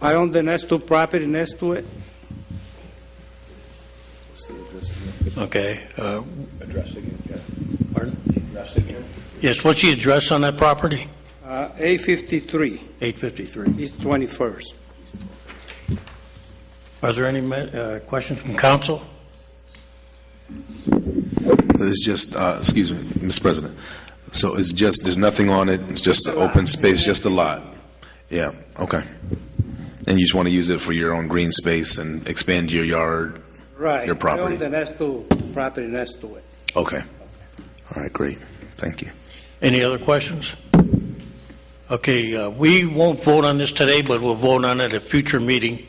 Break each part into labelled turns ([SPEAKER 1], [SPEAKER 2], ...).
[SPEAKER 1] I own the next two property next to it.
[SPEAKER 2] Okay. uh,
[SPEAKER 3] Address again, yeah.
[SPEAKER 2] Pardon?
[SPEAKER 3] Address again?
[SPEAKER 2] Yes, what's the address on that property?
[SPEAKER 1] Uh, A53
[SPEAKER 2] 853.
[SPEAKER 1] is 21st.
[SPEAKER 2] Are there any ma- uh, questions from council?
[SPEAKER 4] It's just, uh, excuse me, Mr. President. So it's just, there's nothing on it, it's just an open space, just a lot? Yeah, okay. And you just want to use it for your own green space and expand your yard?
[SPEAKER 1] Right.
[SPEAKER 4] Your
[SPEAKER 1] I own
[SPEAKER 4] property?
[SPEAKER 1] the next two property next to it.
[SPEAKER 4] Okay. All right, great. Thank you.
[SPEAKER 2] Any other questions? Okay, uh, we won't vote on this today, but we'll vote on it at a future meeting,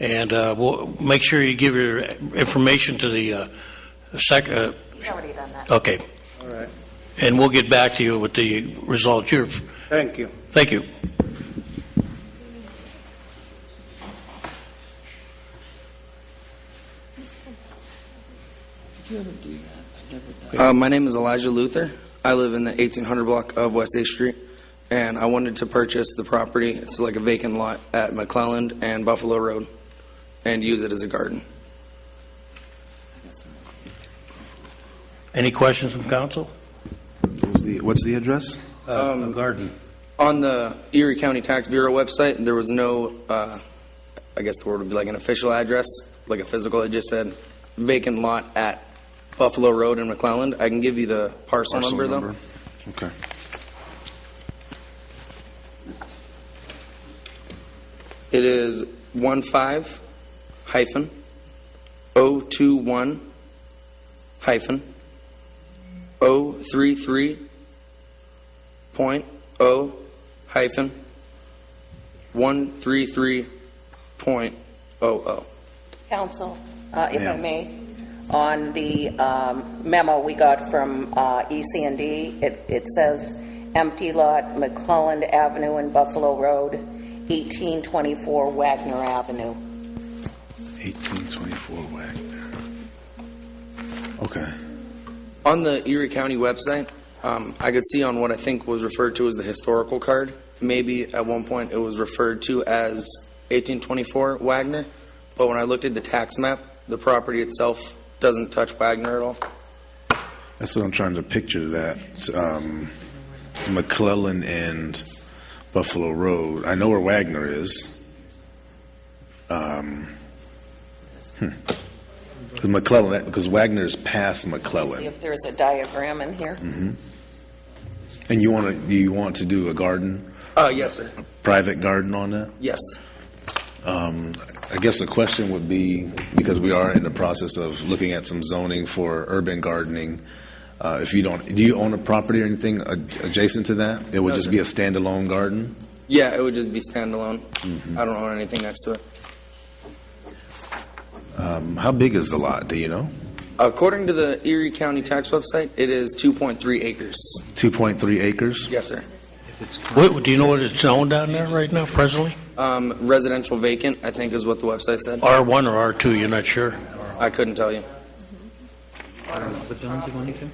[SPEAKER 2] and uh, we'll make sure you give your information to the uh, sec, uh,
[SPEAKER 5] He's already done that.
[SPEAKER 2] okay,
[SPEAKER 1] All right.
[SPEAKER 2] and we'll get back to you with the result. You're,
[SPEAKER 1] Thank you.
[SPEAKER 2] thank you.
[SPEAKER 6] Uh, my name is Elijah Luther. I live in the 1800 block of West 8th Street, and I wanted to purchase the property. It's like a vacant lot at McClelland and Buffalo Road, and use it as a garden.
[SPEAKER 2] Any questions from council?
[SPEAKER 4] What's the address?
[SPEAKER 2] Uh, a Garden.
[SPEAKER 6] On the Erie County Tax Bureau website, there was no, uh, I guess the word would be like an official address, like a physical. It just said vacant lot at Buffalo Road in McClelland. I can give you the parcel, number, though.
[SPEAKER 4] Okay.
[SPEAKER 6] It is one five hyphen O two one hyphen O three three point O hyphen one three three point oh O O.
[SPEAKER 5] Counsel, uh, if I
[SPEAKER 4] Ma'am.
[SPEAKER 5] may, on the um, memo we got from uh, EC&D, it it says empty lot, McClelland Avenue and Buffalo Road, 1824 Wagner Avenue.
[SPEAKER 4] 1824 Wagner. Okay.
[SPEAKER 6] On the Erie County website, um, I could see on what I think was referred to as the historical card. Maybe at one point it was referred to as 1824 Wagner, but when I looked at the tax map, the property itself doesn't touch Wagner at all.
[SPEAKER 4] That's what I'm trying to picture, that um, McClellan and Buffalo Road. I know where Wagner is. Um, hmm. 'Cause McClellan, that- because Wagner is past
[SPEAKER 5] See
[SPEAKER 4] McClellan.
[SPEAKER 5] if there's a diagram in here.
[SPEAKER 4] And you want to, you want to do a garden,
[SPEAKER 6] Uh, yes, sir.
[SPEAKER 4] private garden on that?
[SPEAKER 6] Yes.
[SPEAKER 4] Um, I guess the question would be, because we are in the process of looking at some zoning for urban gardening, uh, if you don't, do you own a property or anything ad- adjacent to that? It would
[SPEAKER 6] No,
[SPEAKER 4] just
[SPEAKER 6] sir.
[SPEAKER 4] be a standalone garden?
[SPEAKER 6] Yeah, it would just be standalone.
[SPEAKER 4] Mm-hmm.
[SPEAKER 6] I don't own anything next to it.
[SPEAKER 4] Um, How big is the lot, do you know?
[SPEAKER 6] According to the Erie County tax website, it is 2.3 acres.
[SPEAKER 4] 2.3 acres?
[SPEAKER 6] Yes, sir.
[SPEAKER 2] What- Do you know what it's zoned down there right now presently?
[SPEAKER 6] Um, residential vacant, I think is what the website said.
[SPEAKER 2] R1 or R2, you're not sure?
[SPEAKER 6] I couldn't tell you.
[SPEAKER 7] What zone do you want it to?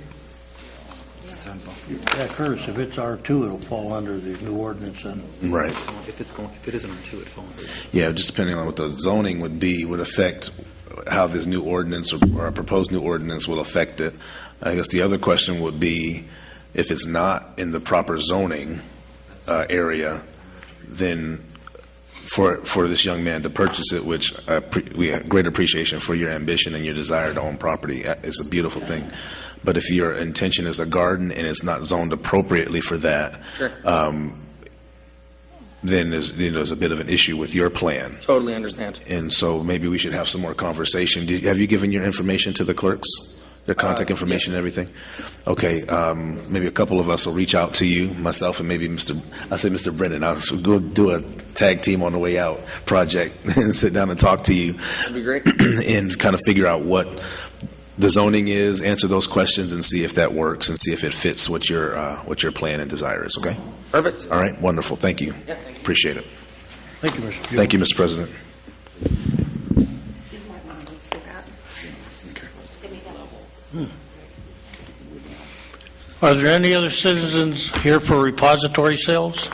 [SPEAKER 2] Yeah, Curtis, if it's R2, it'll fall under the new ordinance and
[SPEAKER 4] Right.
[SPEAKER 7] If it's going, if it isn't R2, it'd fall under it.
[SPEAKER 4] Yeah, just depending on what the zoning would be, would affect how this new ordinance or or a proposed new ordinance will affect it. I guess the other question would be, if it's not in the proper zoning uh, area, then for, for this young man to purchase it, which I appre- we have great appreciation for your ambition and your desire to own property, Uh, it's a beautiful thing. But if your intention is a garden and it's not zoned appropriately for that,
[SPEAKER 6] Sure.
[SPEAKER 4] um, then there's, you know, there's a bit of an issue with your plan.
[SPEAKER 6] Totally understand.
[SPEAKER 4] And so maybe we should have some more conversation. Did- Have you given your information to the clerks? Their contact
[SPEAKER 6] Uh,
[SPEAKER 4] information and everything? Okay, um, maybe a couple of us will reach out to you, myself and maybe Mr., I said Mr. Brennan, I'll s- go do a tag team on the way out project and sit down and talk to you.
[SPEAKER 6] That'd be great.
[SPEAKER 4] And kind of figure out what the zoning is, answer those questions and see if that works and see if it fits what your, uh, what your plan and desire is, okay?
[SPEAKER 6] Perfect.
[SPEAKER 4] All right, wonderful, thank you.
[SPEAKER 6] Yeah, thank you.
[SPEAKER 4] Appreciate it.
[SPEAKER 2] Thank you, Mr. Buell.
[SPEAKER 4] Thank you, Mr. President.
[SPEAKER 2] Are there any other citizens here for repository sales?